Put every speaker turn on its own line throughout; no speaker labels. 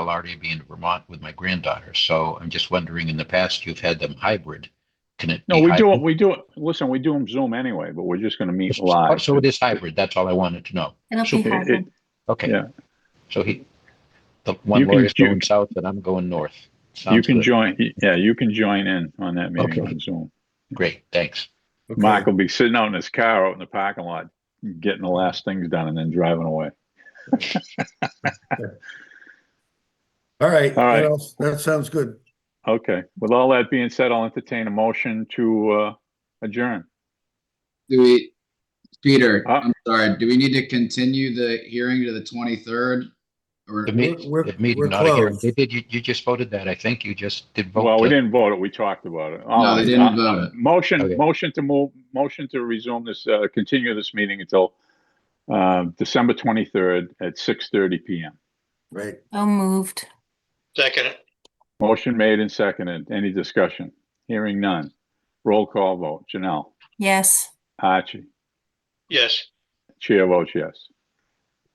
I'll already be in Vermont with my granddaughter. So I'm just wondering, in the past, you've had them hybrid. Can it?
No,
be
we do it,
hybrid?
we do it, listen, we do them Zoom anyway, but we're just gonna meet live.
Oh, So it is hybrid. That's all I wanted to know.
It'll
So
be
it-
hybrid.
Okay.
Yeah.
So he, the one
You can
lawyer's
ju-
going south and I'm going north.
You
Sounds
can
good.
join, yeah, you can join in on that meeting
Okay.
on Zoom.
Great, thanks.
Okay.
Mark will be sitting out in his car out in the parking lot, getting the last things done and then driving away.
All right.
All right.
That else- That sounds good.
Okay, with all that being said, I'll entertain a motion to uh, adjourn.
Do we, Peter,
Uh,
I'm sorry, do we need to continue the hearing to the 23rd? Or,
The
We're-
meet-
we're-
the meeting,
we're
not a hearing.
closed.
They did, you, you just voted that. I think you just did vote.
Well, we
to-
didn't vote it, we talked about it.
no, they
Uh,
didn't vote it.
Motion,
Okay.
motion to move, motion to resume this, uh, continue this meeting until uh, December 23rd at 6:30 PM.
Right.
So moved.
Second,
Motion made and seconded. Any discussion? Hearing none. Roll call vote. Janelle,
Yes.
Archie,
yes.
chair votes yes.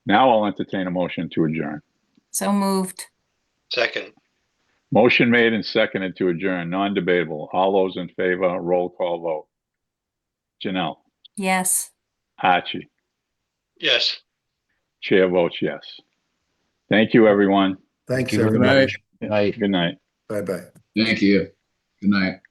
Now I'll entertain a motion to adjourn.
So moved.
Second,
Motion made and seconded to adjourn, non-debatable. All those in favor, roll call vote. Janelle,
Yes.
Archie,
yes.
chair votes yes. Thank you, everyone.
Thanks,
Thank you very
everybody.
much. Good Night.
Good night.
Bye-bye.
Thank you. Good night.